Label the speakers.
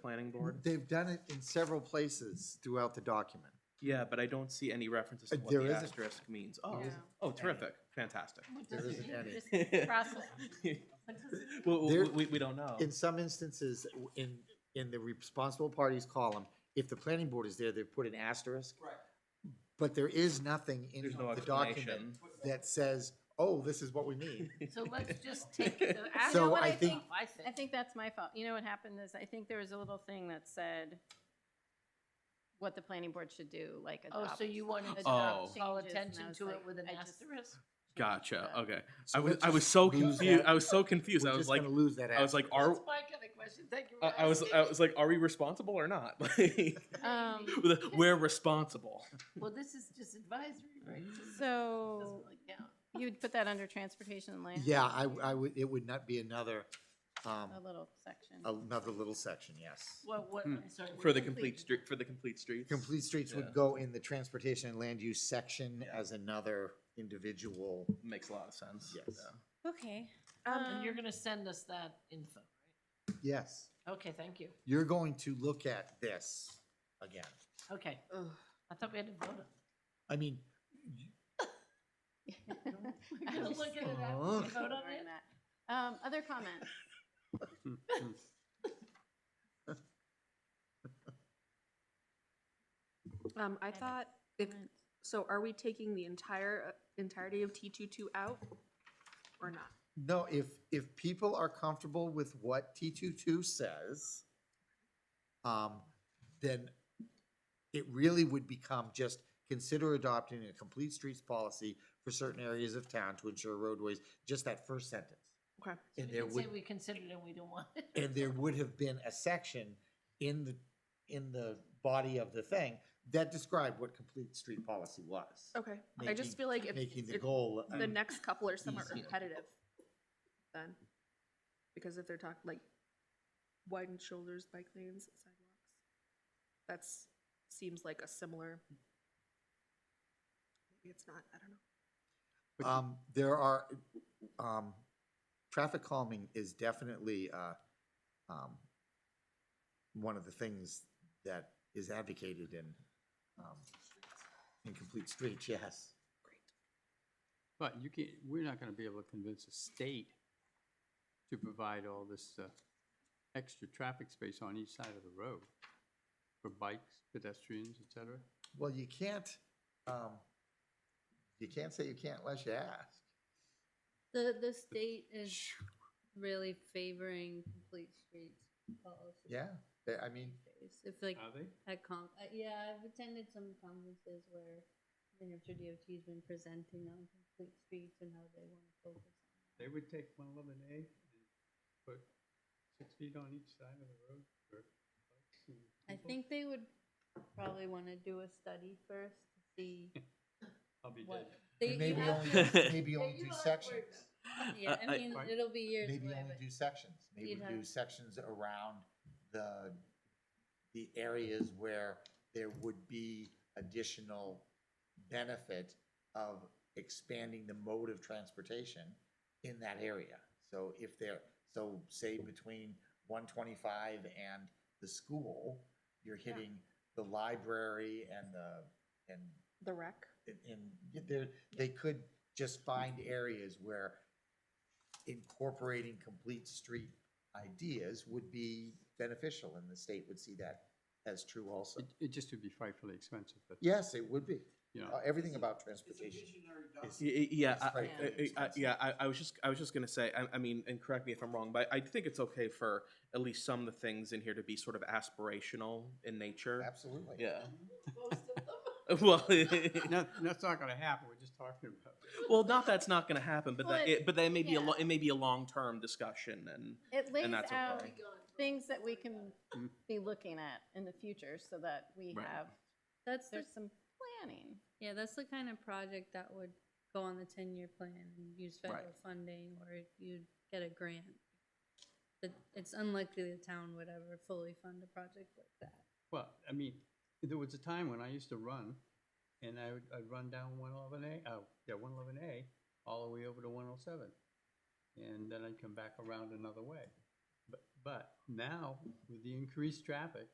Speaker 1: planning board?
Speaker 2: They've done it in several places throughout the document.
Speaker 1: Mm-hmm. Yeah, but I don't see any references to
Speaker 2: Uh,
Speaker 1: what
Speaker 2: there
Speaker 1: the
Speaker 2: isn't.
Speaker 1: asterisk means. Oh,
Speaker 3: Yeah.
Speaker 1: oh, terrific, fantastic.
Speaker 2: There isn't any.
Speaker 1: Well,
Speaker 2: There-
Speaker 1: we, we don't know.
Speaker 2: In some instances, in, in the responsible parties column, if the planning board is there, they put an asterisk.
Speaker 4: Right.
Speaker 2: But there is nothing in
Speaker 1: There's no
Speaker 2: the document
Speaker 1: explanation.
Speaker 2: that says, oh, this is what we mean.
Speaker 3: So let's just take the.
Speaker 2: You know So what I I
Speaker 3: asterisk
Speaker 2: think-
Speaker 3: off, I think.
Speaker 5: I think that's my fault. You know what happened is, I think there was a little thing that said what the planning board should do, like
Speaker 3: Oh,
Speaker 5: adopt.
Speaker 3: so you wanted to
Speaker 1: Oh.
Speaker 3: not
Speaker 5: Changes,
Speaker 3: call
Speaker 5: and I
Speaker 3: attention
Speaker 5: was
Speaker 3: to it
Speaker 5: like,
Speaker 3: with an
Speaker 5: I just-
Speaker 3: asterisk?
Speaker 1: Gotcha,
Speaker 3: Uh,
Speaker 1: okay.
Speaker 2: So
Speaker 1: I was,
Speaker 2: let's
Speaker 1: I was
Speaker 2: just
Speaker 1: so
Speaker 2: lose
Speaker 1: confused,
Speaker 2: that.
Speaker 1: I was so confused. I
Speaker 2: We're
Speaker 1: was
Speaker 2: just
Speaker 1: like,
Speaker 2: gonna lose that
Speaker 1: I was like, are,
Speaker 3: That's my kind of question, thank you for
Speaker 1: I, I was, I
Speaker 3: asking.
Speaker 1: was like, are we responsible or not? Like,
Speaker 5: Um,
Speaker 1: We're responsible.
Speaker 3: Well, this is just advisory, right? This is-
Speaker 5: so
Speaker 3: doesn't really count.
Speaker 5: you'd put that under transportation and land?
Speaker 2: Yeah, I, I would, it would not be another, um,
Speaker 5: A little section.
Speaker 2: another little section, yes.
Speaker 3: What, what,
Speaker 1: Hmm.
Speaker 3: I'm sorry.
Speaker 1: For
Speaker 3: what
Speaker 1: the complete street, for the complete streets.
Speaker 2: Complete streets
Speaker 1: Yeah.
Speaker 2: would go in the transportation and land use section
Speaker 1: Yeah.
Speaker 2: as another individual.
Speaker 1: Makes a lot of sense.
Speaker 2: Yes.
Speaker 1: yeah.
Speaker 5: Okay.
Speaker 3: And Oh, you're
Speaker 5: um,
Speaker 3: gonna send us that info,
Speaker 2: Yes,
Speaker 3: right? Okay, thank you,
Speaker 2: you're going to look at this again.
Speaker 3: okay. I thought we had to vote on.
Speaker 2: I mean,
Speaker 3: We're gonna look at it after
Speaker 2: Oh.
Speaker 3: we vote on
Speaker 5: ignoring
Speaker 3: it.
Speaker 5: that. Um, other comments?
Speaker 6: Um, I thought, if,
Speaker 5: Comments?
Speaker 6: so are we taking the entire, uh, entirety of T two two out or not?
Speaker 2: no, if, if people are comfortable with what T two two says, um, then it really would become just consider adopting a complete streets policy for certain areas of town to ensure roadways, just that first sentence.
Speaker 6: Okay.
Speaker 3: We
Speaker 2: And there
Speaker 3: can say
Speaker 2: would,
Speaker 3: we considered and we don't want it.
Speaker 2: and there would have been a section in the, in the body of the thing that described what complete street policy was,
Speaker 6: Okay, I
Speaker 2: Making-
Speaker 6: just feel like if,
Speaker 2: making the
Speaker 6: if
Speaker 2: goal.
Speaker 6: the next couple are somewhat
Speaker 2: easier.
Speaker 6: repetitive, then, because if they're talking, like, widened shoulders, bike lanes, sidewalks, that's, seems like a similar, maybe it's not, I don't know.
Speaker 2: Um, there are, um, traffic calming is definitely, uh, um, one of the things that is advocated in, um, in complete streets, yes.
Speaker 7: But you can't, we're not gonna be able to convince a state to provide all this, uh, extra traffic space on each side of the road for bikes, pedestrians, et cetera.
Speaker 2: Well, you can't, um, you can't say you can't unless you ask.
Speaker 8: The, the state is really favoring complete streets policy.
Speaker 2: Yeah, they- I mean,
Speaker 8: If like
Speaker 7: Are they?
Speaker 8: at con, uh, yeah, I've attended some conferences where the New Hampshire DOT's been presenting on complete streets and how they want to focus on.
Speaker 7: They would take one eleven A and put six feet on each side of the road for bikes and
Speaker 8: that. I
Speaker 7: people.
Speaker 8: think they would probably want to do a study first to see
Speaker 7: I'll be
Speaker 8: what.
Speaker 7: dead.
Speaker 8: They, you
Speaker 2: maybe
Speaker 8: have
Speaker 2: only,
Speaker 8: to-
Speaker 2: maybe
Speaker 8: Yeah,
Speaker 2: only
Speaker 8: you
Speaker 2: do
Speaker 8: don't have to worry
Speaker 2: sections.
Speaker 8: about it. Yeah,
Speaker 1: I-
Speaker 8: I mean,
Speaker 7: Right.
Speaker 8: it'll be years
Speaker 2: Maybe
Speaker 8: away,
Speaker 2: only
Speaker 8: but
Speaker 2: do sections, maybe
Speaker 8: You'd have-
Speaker 2: do sections around the, the areas where there would be additional benefit of expanding the mode of transportation in that area. So if they're, so say between one twenty-five and the school, you're hitting the library and the, and
Speaker 6: The rec?
Speaker 2: and- and there, they could just find areas where incorporating complete street ideas would be beneficial, and the state would see that as true also.
Speaker 7: It, it just would be frightfully expensive, but,
Speaker 2: Yes, it would be.
Speaker 7: you know.
Speaker 2: Uh, Everything about
Speaker 4: It's a
Speaker 2: transportation.
Speaker 4: visionary document.
Speaker 2: It's-
Speaker 1: Y- y- Yeah,
Speaker 2: It's
Speaker 1: I-
Speaker 2: quite
Speaker 1: I- I- I-
Speaker 2: expensive.
Speaker 1: yeah, I, I was just, I was just gonna say, I, I mean, and correct me if I'm wrong, but I think it's okay for at least some of the things in here to be sort of aspirational in nature.
Speaker 2: Absolutely.
Speaker 1: Yeah.
Speaker 3: Most of them.
Speaker 1: Well,
Speaker 7: No, that's not gonna happen, we're just talking about.
Speaker 1: well, not that's not gonna happen, but
Speaker 5: Well,
Speaker 1: that, it, but that may be a,
Speaker 5: yeah.
Speaker 1: lo- it may be a long-term discussion and.
Speaker 5: It lays
Speaker 1: that's
Speaker 5: out
Speaker 1: okay. Mm-hmm.
Speaker 5: things that we can
Speaker 7: Mm.
Speaker 5: be looking at in the future so that we
Speaker 1: Right.
Speaker 5: have,
Speaker 8: that's the
Speaker 5: there's some planning.
Speaker 8: Yeah, that's the kind of project that would go on the ten-year plan and use
Speaker 1: Right.
Speaker 8: federal funding, or you'd get a grant. But it's unlikely the town would ever fully fund a project like that.
Speaker 7: Well, I mean, there was a time when I used to run, and I would, I'd run down one eleven A, oh, yeah, one eleven A, all the way over to one oh seven. And then I'd come back around another way. But, But now, with the increased traffic,